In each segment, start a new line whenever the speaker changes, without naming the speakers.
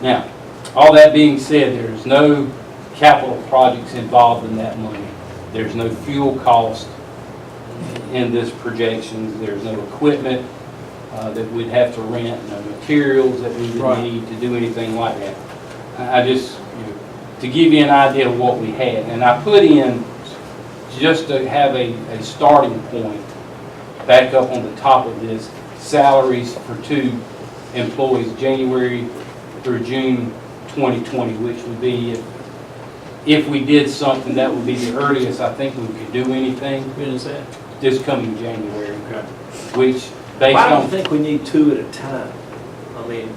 Now, all that being said, there's no capital projects involved in that money. There's no fuel cost in this projection. There's no equipment uh, that we'd have to rent, no materials that we would
Right.
need to do anything like that. I I just, you know, to give you an idea of what we had, and I put in, just to have a, a starting point, back up on the top of this, salaries for two employees, January through June 2020, which would be, if- if we did something, that would be the earliest I think we could do anything,
When is that?
this coming January,
Okay.
which,
Well,
based
I don't
on...
think we need two at a time. I mean,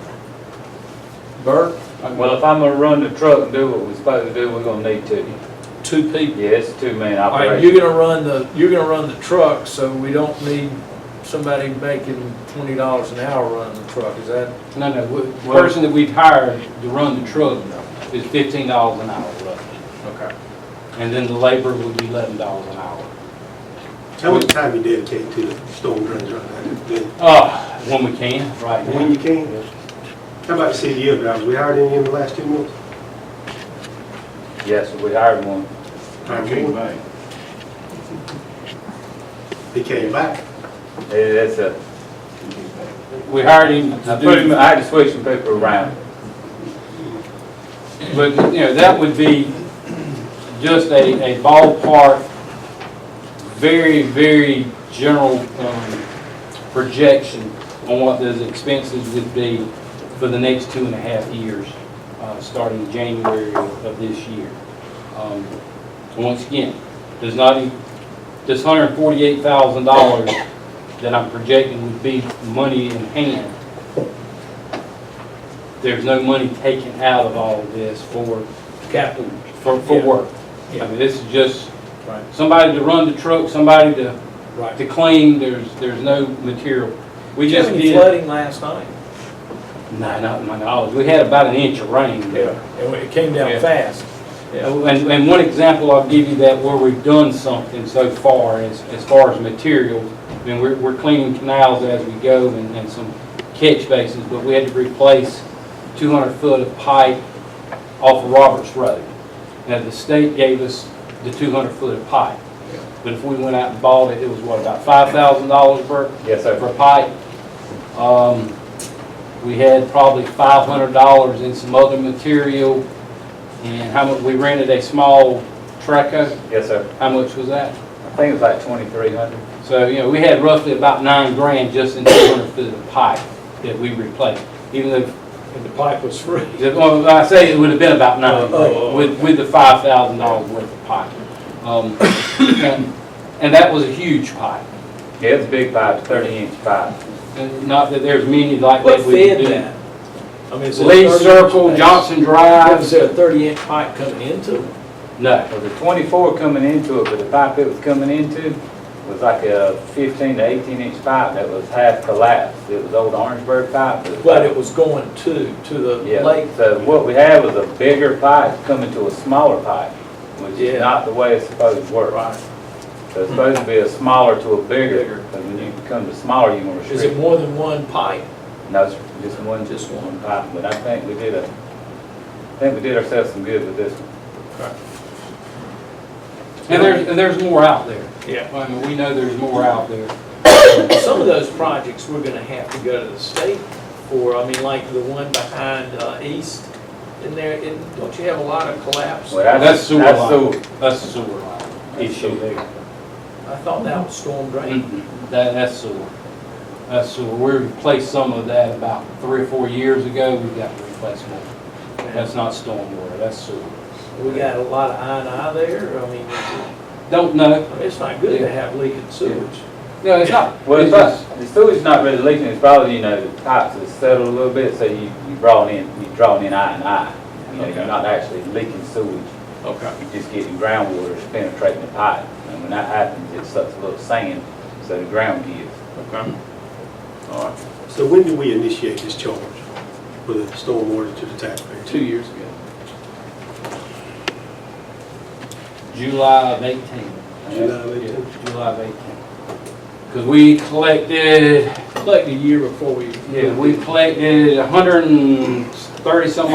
Bert,
Well, if I'm gonna run the truck and do what we're supposed to do, we're gonna need two.
two people.
Yeah, it's a two-man
All right, you're
operation.
gonna run the, you're gonna run the truck, so we don't need somebody making twenty dollars an hour running the truck, is that?
No, no, we- the person that we've hired to run the truck is $15 an hour roughly,
Okay.
and then the labor would be $11 an hour.
How much time you dedicate to storm drains right now?
Uh, when we can, right
When
now.
you can? How about the CDL drivers? We hired any in the last two months?
Yes, we hired one.
back. He came back?
It- It's a,
We hired him
I
to
put him-
do,
I had to switch some people around.
but, you know, that would be just a, a ballpark, very, very general, um, projection on what those expenses would be for the next two and a half years, uh, starting January of this year. Um, Once again, does not, e- this hundred and forty-eight thousand dollars that I'm projecting would be money in hand. There's no money taken out of all of this for capital, for, for
Yeah.
work. I
Yeah.
mean, this is just
Right,
somebody to run the truck, somebody to
right.
to clean, there's, there's no material. We
Did you
just
have any
did,
flooding last night?
no, not in my knowledge, we had about an inch of rain.
And it came down
Yeah.
fast. Yeah.
And, and one example I'll give you that where we've done something so far as, as far as materials, I mean, we're, we're cleaning canals as we go and, and some catch bases, but we had to replace two hundred foot of pipe off of Roberts Road. Now, the state gave us the two hundred foot of pipe, but if we went out and bought it, it was what, about five thousand dollars, Bert?
Yes, sir.
for pipe. Um, We had probably five hundred dollars in some other material, and how much, we rented a small Treco,
Yes, sir.
how much was that?
I think it was like twenty-three hundred.
So, you know, we had roughly about nine grand just in two hundred foot of pipe that we replaced, even though,
And the pipe was free.
the- well, I say it would have been about nine
Oh, oh, oh.
grand with, with the five thousand dollars worth of pipe. Um, And and that was a huge pipe,
Yeah, it's a big pipe, thirty-inch pipe.
And not that there's many like
What
that we could
fed
do.
that? I mean, is it
Lee
30
Circle,
inch?
Johnson
Was
Drive.
there a thirty inch pipe coming into it?
No,
Well, the twenty-four coming into it, but the pipe it was coming into was like a fifteen to eighteen-inch pipe that was half collapsed. It was old Orangeburg pipe. was-
But it was going to, to the lake.
Yeah, so what we had was a bigger pipe coming to a smaller pipe, which
Yeah.
is not the way it's supposed to work. So it's supposed to be a smaller to a bigger, because when you come to smaller, you can
Is it
restrict.
more than one pipe?
No, it's just one, just one pipe, but I think we did a, I think we did ourselves some good with this one.
and there's, and there's more out there.
Yeah.
I mean, we know there's more out there.
Some of those projects, we're gonna have to go to the state for, I mean, like the one behind uh, East in there, and don't you have a lot of collapse?
Well,
I
that's-
That's sewer
that's
line. That's the sewer line issue.
sewer.
thought that was storm drain.
Mm-mm, Mm-hmm. That, that's sewer. That's sewer. We replaced some of that about three or four years ago. We got to replace more.
mm,
That's not stormwater, that's sewer.
We got a lot of I and I there, I mean, it's-
Don't know.
it's not good to have leaking sewage.
No, it's not.
Well,
It's
it's
just,
not, the sewer's not really leaking, it's probably, you know, the pipes are settled a little bit, so you, you brought in, you draw in I and I. You know, you're
Okay.
not actually leaking sewage,
Okay.
you're just getting groundwater that's penetrating the pipe. And when that happens, it sucks a little sand, so the ground gives.
Okay. All right.
So when do we initiate this charge for the stormwater to the taxpayer?
Two years ago.
July of eighteen.
July of 18?
Yeah, July of eighteen. Because we collected
Like the year before we.
Yeah, we collected a hundred and thirty some